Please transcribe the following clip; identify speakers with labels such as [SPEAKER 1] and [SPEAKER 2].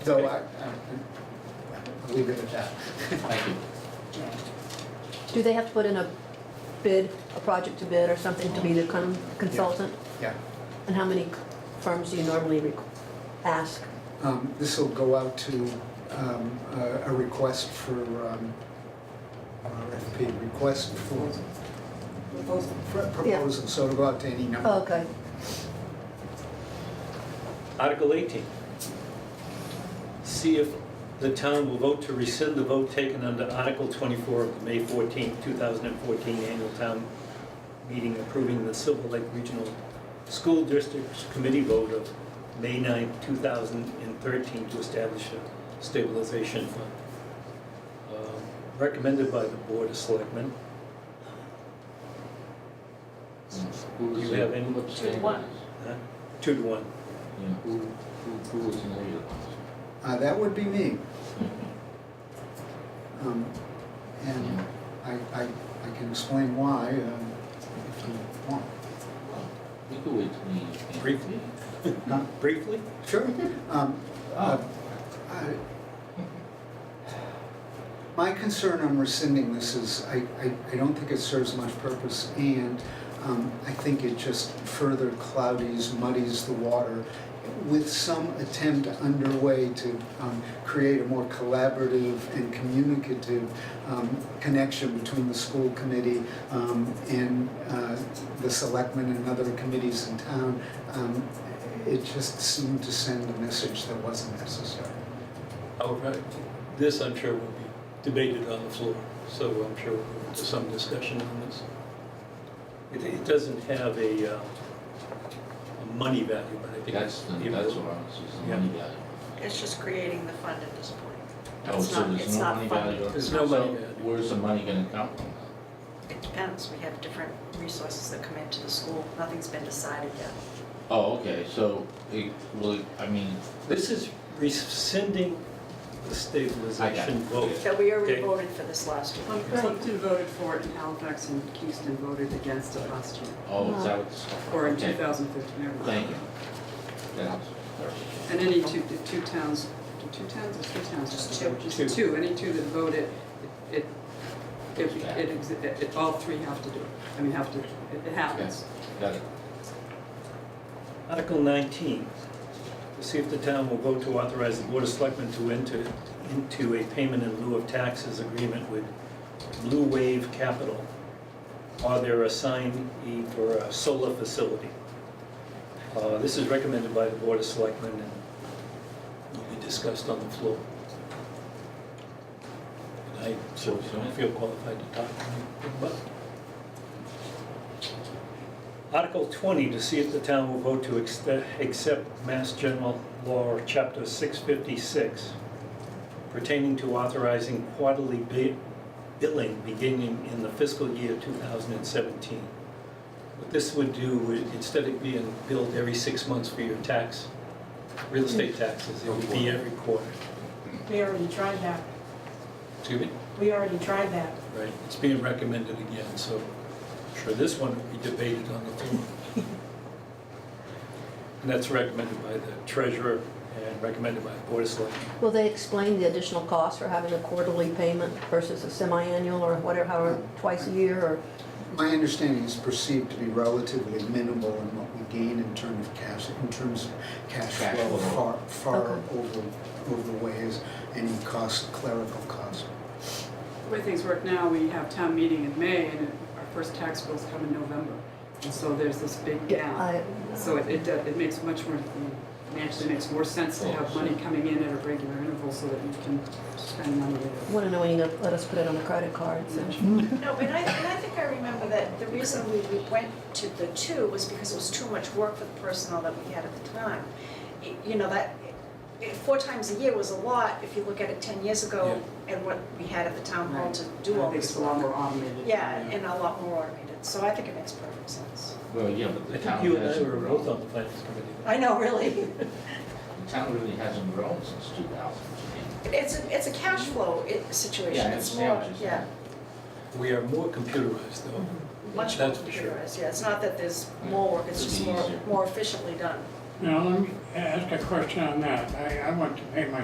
[SPEAKER 1] So I, I- I'll leave it at that.
[SPEAKER 2] Thank you.
[SPEAKER 3] Do they have to put in a bid, a project to bid or something to be the con- consultant?
[SPEAKER 1] Yeah.
[SPEAKER 3] And how many firms do you normally re- ask?
[SPEAKER 1] Um, This will go out to um, a a request for, um, RFP, request for for proposal, so it'll go out to any number.
[SPEAKER 3] Oh, Okay,
[SPEAKER 4] Article 18, see if the town will vote to rescind the vote taken under Article 24 of the May 14, 2014 annual town meeting approving the Silver Lake Regional School District's committee vote of May 9, 2013 to establish a stabilization fund. Um, Recommended by the Board of Selectmen.
[SPEAKER 2] Who is
[SPEAKER 4] You have
[SPEAKER 2] it?
[SPEAKER 4] any-
[SPEAKER 2] What's the name of
[SPEAKER 5] One.
[SPEAKER 2] it?
[SPEAKER 4] huh? Two to one.
[SPEAKER 2] Yeah, who, who, who was in lead?
[SPEAKER 1] Uh, That would be me. Um, And I, I, I can explain why um, if you want.
[SPEAKER 2] You could wait till me.
[SPEAKER 4] Briefly.
[SPEAKER 1] Not-
[SPEAKER 4] Briefly?
[SPEAKER 1] Sure. Um,
[SPEAKER 2] Oh.
[SPEAKER 1] uh, I- My concern on rescinding this is, I, I, I don't think it serves much purpose, and um, I think it just further cloudies, muddies the water with some attempt underway to um, create a more collaborative and communicative um, connection between the school committee um, and uh, the selectmen and other committees in town. Um, It just seemed to send a message that wasn't necessary.
[SPEAKER 4] Outright. This, I'm sure, will be debated on the floor, so I'm sure we'll go into some discussion on this. It, it doesn't have a, uh, a money value, but I think.
[SPEAKER 2] That's, the-
[SPEAKER 4] it will-
[SPEAKER 2] that's what I was, is the money value.
[SPEAKER 5] It's just creating the fund at this point.
[SPEAKER 2] Oh,
[SPEAKER 5] It's
[SPEAKER 2] so
[SPEAKER 5] not-
[SPEAKER 2] there's
[SPEAKER 5] it's
[SPEAKER 2] no
[SPEAKER 5] not
[SPEAKER 2] money
[SPEAKER 5] funded.
[SPEAKER 2] value.
[SPEAKER 4] There's no
[SPEAKER 2] So
[SPEAKER 4] money value.
[SPEAKER 2] Where's the money gonna come from?
[SPEAKER 5] It depends, we have different resources that come into the school, nothing's been decided yet.
[SPEAKER 2] Oh, okay, so it, well, I mean,
[SPEAKER 4] This is rescinding the stabilization vote.
[SPEAKER 5] That
[SPEAKER 4] Okay.
[SPEAKER 5] we already voted for this last year.
[SPEAKER 6] Well, Plimpton voted for it, and Halifax and Kingston voted against it last year,
[SPEAKER 2] oh, is that what's?
[SPEAKER 6] or in
[SPEAKER 2] okay,
[SPEAKER 6] 2015. or-
[SPEAKER 2] Thank you. That helps. Perfect.
[SPEAKER 6] And any two, the two towns, the two towns or three towns?
[SPEAKER 5] Just
[SPEAKER 6] that voted? Just two, any two that voted, it, it, it,
[SPEAKER 2] Yeah.
[SPEAKER 6] exi- it, it- all three have to do, it. I mean, have to, it it happens.
[SPEAKER 2] Got it.
[SPEAKER 4] Article 19, to see if the town will vote to authorize the Board of Selectmen to enter into a payment in lieu of taxes agreement with Blue Wave Capital or their assignee for a solar facility. Uh, This is recommended by the Board of Selectmen and will be discussed on the floor. And I certainly don't feel qualified to talk about it. Article 20, to see if the town will vote to ex- accept Mass General Law, Chapter 656, pertaining to authorizing quarterly bi- billing beginning in the fiscal year 2017. What this would do, i- instead of being billed every six months for your tax, real estate taxes, it would be every quarter.
[SPEAKER 7] We already tried that.
[SPEAKER 4] Excuse me?
[SPEAKER 7] We already tried that.
[SPEAKER 4] Right, it's being recommended again, so I'm sure this one will be debated on the floor. And that's recommended by the treasurer and recommended by the board of selectmen.
[SPEAKER 3] will they explain the additional cost for having a quarterly payment versus a semi-annual or whatever, however, twice a year or?
[SPEAKER 1] My understanding is perceived to be relatively minimal in what we gain in terms of cash, in terms of cash
[SPEAKER 2] Cash
[SPEAKER 1] flow,
[SPEAKER 2] flow.
[SPEAKER 1] far, far
[SPEAKER 3] Okay.
[SPEAKER 1] over, overweighs any cost, clerical cost.
[SPEAKER 6] The way things work now, we have town meeting in May, and it- our first tax bills come in November, and so there's this big gap.
[SPEAKER 3] I-
[SPEAKER 6] So it, it, do- it makes much more, financially makes more sense to have money coming in at a regular interval so that you can spend money later.
[SPEAKER 3] Want to know when you gonna let us put it on a credit card, so.
[SPEAKER 5] No, but I, and I think I remember that the reason we, we went to the two was because it was too much work for the personnel that we had at the time. Y- You know, that, it- four times a year was a lot, if you look at it ten years ago and what we had at the town hall to do all
[SPEAKER 6] I think it's
[SPEAKER 5] this
[SPEAKER 6] a lot
[SPEAKER 5] work.
[SPEAKER 6] more automated.
[SPEAKER 5] Yeah, and a lot more automated, so I think it makes perfect sense.
[SPEAKER 2] Well, yeah, but
[SPEAKER 4] I
[SPEAKER 2] the
[SPEAKER 4] think
[SPEAKER 2] town
[SPEAKER 4] you and I
[SPEAKER 2] hasn't
[SPEAKER 4] were both
[SPEAKER 2] grown.
[SPEAKER 4] on the finance committee.
[SPEAKER 5] I know, really.
[SPEAKER 2] The town really hasn't grown since two thousand.
[SPEAKER 5] It's a, it's a cash flow i-
[SPEAKER 2] Yeah, I
[SPEAKER 5] situation, it's
[SPEAKER 2] understand
[SPEAKER 5] more,
[SPEAKER 2] what you're
[SPEAKER 5] yeah,
[SPEAKER 2] saying.
[SPEAKER 4] We are more computerized though.
[SPEAKER 5] much more
[SPEAKER 4] That's for sure.
[SPEAKER 5] computerized, yeah, it's not that there's more work, it's
[SPEAKER 2] It's
[SPEAKER 5] just more,
[SPEAKER 2] easier.
[SPEAKER 5] more efficiently done.
[SPEAKER 8] Now, let me ask a question on that. I, I want to pay my